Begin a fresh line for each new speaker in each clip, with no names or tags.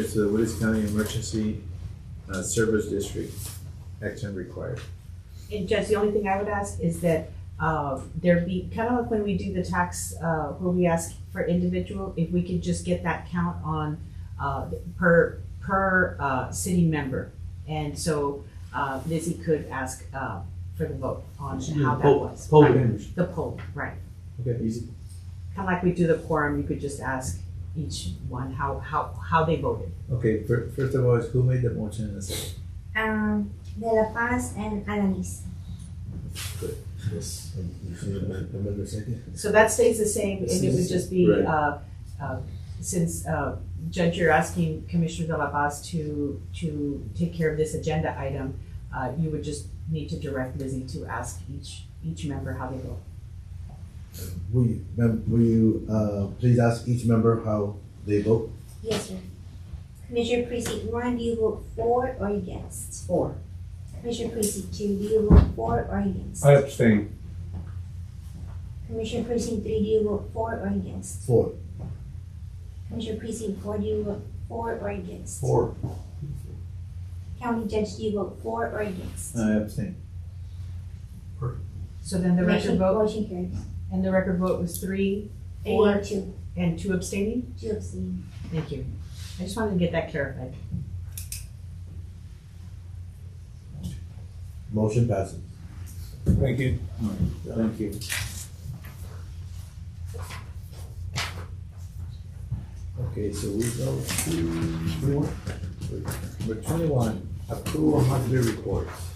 It's the Woods County Emergency uh, Service District, action required.
And Judge, the only thing I would ask is that uh, there be, kind of like when we do the tax, uh, where we ask for individual, if we could just get that count on uh, per, per uh, city member. And so uh, Lizzie could ask uh, for the vote on
She did
how
the
that
poll-
was.
poll
Right.
damage.
The poll, right.
Okay. Easy.
Kind of like we do the quorum, you could just ask each one how, how, how they voted.
Okay, fir- first of all, is who made the motion and the second?
Um, De La Paz and Alanis.
Yes. um, Amendment second?
So that stays the same, and it would just be,
Right.
uh, uh, since, uh, Judge, you're asking Commissioner De La Paz to, to take care of this agenda item, uh, you would just need to direct Lizzie to ask each, each member how they vote.
Will you, mem- will you, uh, please ask each member how they vote?
Yes, sir. Commissioner Precinct One, do you vote for or against?
Four.
Commissioner Precinct Two, do you vote for or against?
I abstain.
Commissioner Precinct Three, do you vote for or against?
Four.
Commissioner Precinct Four, do you vote for or against?
Four.
County Judge, do you vote for or against?
I abstain.
So then the
Motion-
record vote,
Motion carries.
and the record vote was three
Three
Four.
and two,
and two abstaining?
two abstaining.
Thank you. I just wanted to get that clarified.
Motion passes.
Thank you.
Thank you. Okay, so we go to number twenty-one, approval monthly reports.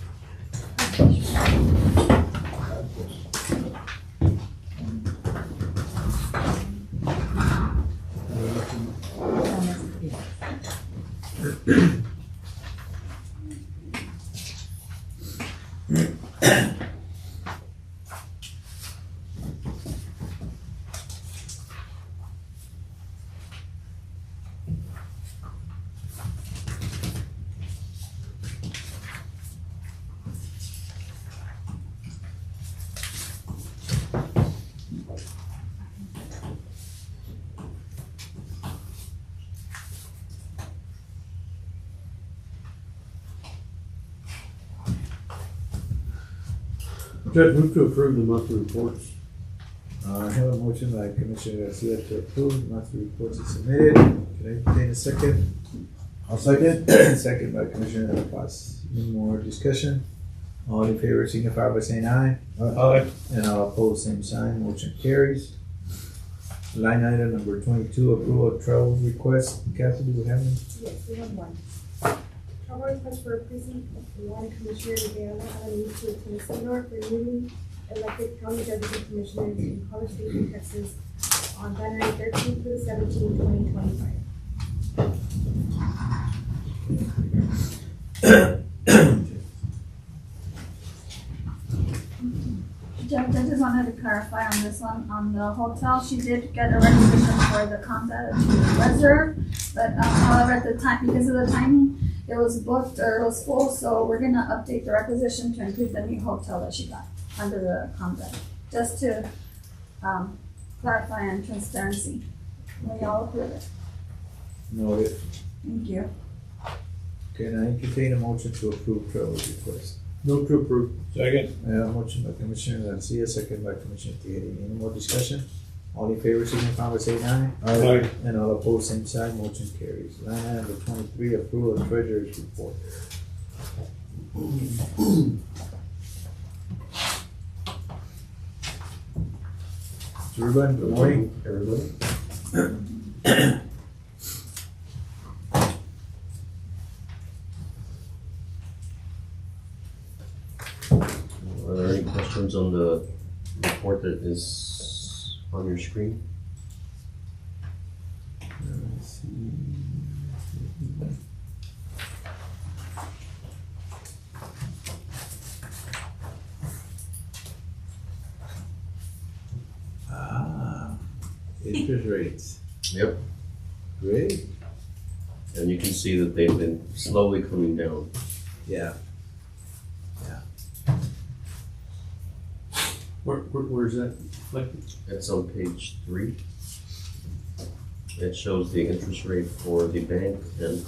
Judge, move to approve the monthly reports.
Uh, I have a motion by Commissioner Garcia to approve, monthly reports is submitted. Can I obtain a second?
I'll second.
Second by Commissioner De La Paz. Any more discussion? All in favor signify by saying aye.
Aye.
And all opposed, same sign, motion carries. Line item number twenty-two, approval of travel request. Kathy, do we have any?
Yes, we have one. Travel request for precinct one commissioner to Guyana Alanis to attend seminar for newly elected county deputy commissioners in College Station, Texas on January thirteenth through 17, 2025.
Judge, I just wanted to clarify on this one, on the hotel, she did get a requisition for the Conda to reserve, but um, however, at the time, because of the timing, it was booked or it was full, so we're gonna update the requisition to include the new hotel that she got under the Conda, just to um, clarify and transparency. We all approve it.
No. it-
Thank you.
Can I entertain a motion to approve travel request?
Move to approve.
Second.
I have a motion by Commissioner Garcia, second by Commissioner Tejeda. Any more discussion? All in favor signify by saying aye.
Aye.
And all opposed, same side, motion carries. Line item number twenty-three, approval of treasurer's report. Ruben, good morning. Everybody.
Are there any questions on the report that is on your screen?
Ah, interest rates,
Yep.
great,
And you can see that they've been slowly coming down.
yeah.
Where, where, where's that? Like,
That's on page three. It shows the interest rate for the bank and